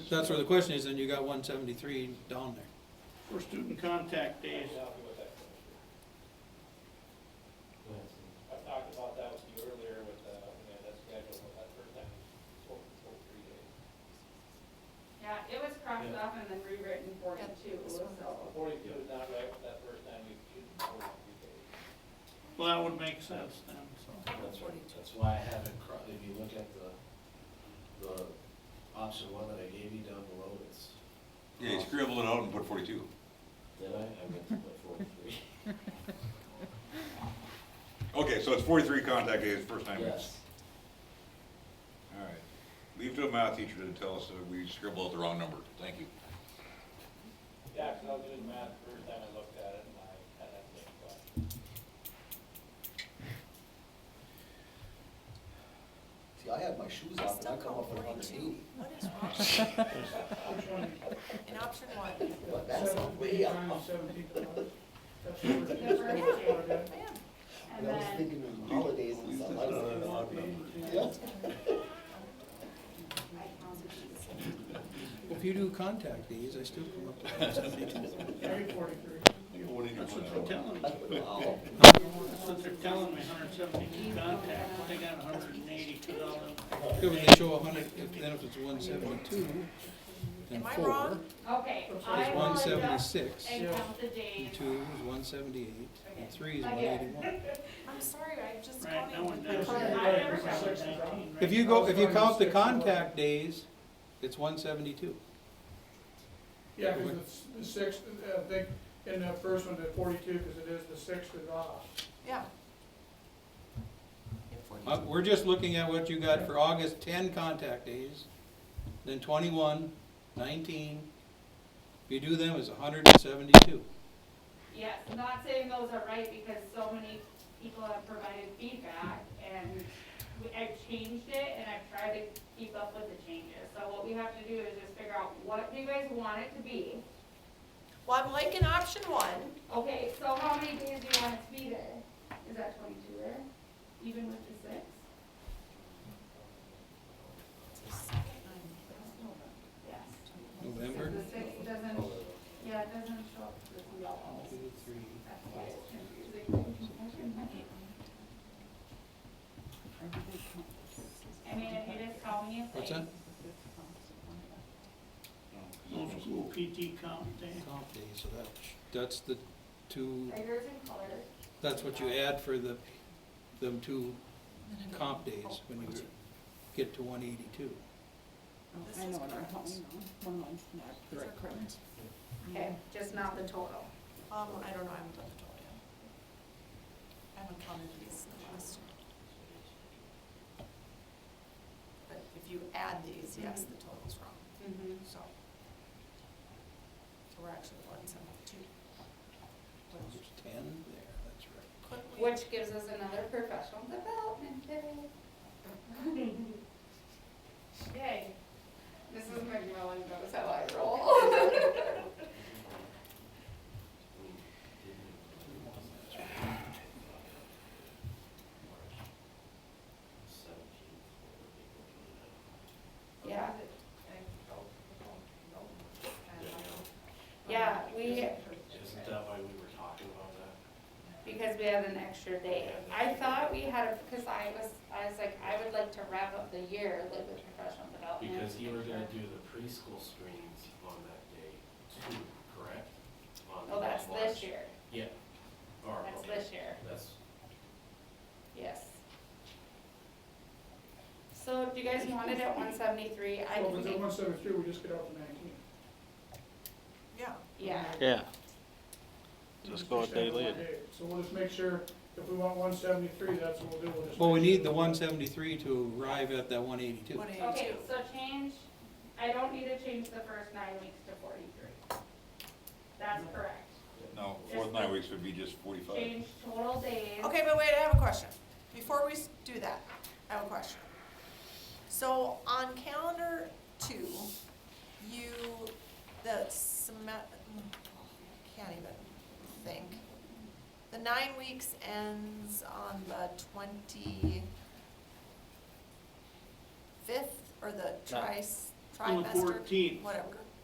That's where the question is, then you got one seventy-three down there. For student contact days, I talked about that with you earlier with, uh, you know, that schedule, but that first time, four, four, three days. Yeah, it was crossed off and then rewritten forty-two, Got this so. one. Forty-two is not right with that first time we shoot forty-two days. well, that would make sense then, so. That's, that's why I have it, cro- if you look at the, the option one that I gave you down below, it's. Yeah, you scribbled it out and put forty-two. Did I? I meant to put forty-three. Okay, so it's forty-three contact days, first time. Yes. All right. Leave to a math teacher to tell us that we scribbled out the wrong number. Thank you. Yeah, 'cause I was doing math the first time I looked at it, and I had that same question. See, I have my shoes I on, and still I come call up with hundred and forty-two. eighty. What is wrong? In option one, But that's way up. Seventeen times, seventeen dollars. That's what we're- The first year, that's I am. And And I was then, thinking of holidays and stuff. I was what like, we're doing. Yeah. I counted these. If you do contact these, I still come up with one seventy-two. Every forty-three. That's what they're telling me. Wow. That's what they're telling me, hundred seventeen contacts, but they got hundred and eighty dollars. If they show a hundred, if- then if it's one seventy-two, then Am I four wrong? Okay, is I will one adjust seventy-six, and count the days. and two is one seventy-eight, and three is one Okay. eighty-one. I'm sorry, I just Right, no called one you. does. I never counted Six that. eighteen, right? If you go, if you count the contact days, it's one seventy-two. Yeah, because the sixth, uh, I think, in the first one, the forty-two, because it is, the sixth is off. Yeah. Uh, we're just looking at what you got for August, ten contact days, then 21, 19. If you do them, it's hundred and seventy-two. Yes, not saying those are right because so many people have provided feedback and we- I've changed it and I've tried to keep up with the changes. So what we have to do is just figure out what do you guys want it to be? Well, I'm liking option one. Okay, so how many days do you want it to be there? Is that twenty-two there? Even with the six? Yes. November, The six doesn't, yeah, it doesn't show up with the yellow. two, three, That's why it's confusing. I mean, if you just call me a what's thing. that? Most school PT count days. Comp days, so that, that's the two, Figures and colors. that's what you add for the, them two comp days when you get to one eighty-two. This is correct. Um, These are correct. Okay, just not the total. Um, I don't know, I haven't done the total yet. I haven't counted these in the last. But if you add these, yes, the total's wrong, Mm-hmm. so. So we're actually one seventy-two. There's ten there, that's right. Couldn't we? Which gives us another professional development day. Yay. Mrs. McMillan knows how I roll. Yeah. Yeah, we, Isn't that why we were talking about that? because we had an extra day. I thought we had, because I was, I was like, I would like to wrap up the year like with professional development. Because you were gonna do the preschool screenings on that day too, correct? On Oh, that's this March. year, Yeah. Or, that's okay, this year, that's, yes. So do you guys want it at one seventy-three? I Well, can but make, then one seventy-two, we just get up to nineteen. Yeah. yeah, Yeah, Just go a day later. So we'll just make sure, if we want one seventy-three, that's what we'll do, we'll just. Well, we need the one seventy-three to arrive at that one eighty-two. One okay, eighty-two. so change, I don't need to change the first nine weeks to forty-three. That's correct. No, fourth nine weeks would be just forty-five. Change total days. Okay, but wait, I have a question. Before we s- do that, I have a question. So on calendar two, you, the seme- I can't even think. The nine weeks ends on the twenty-fifth or the tri, On the trimester, fourteenth, whatever.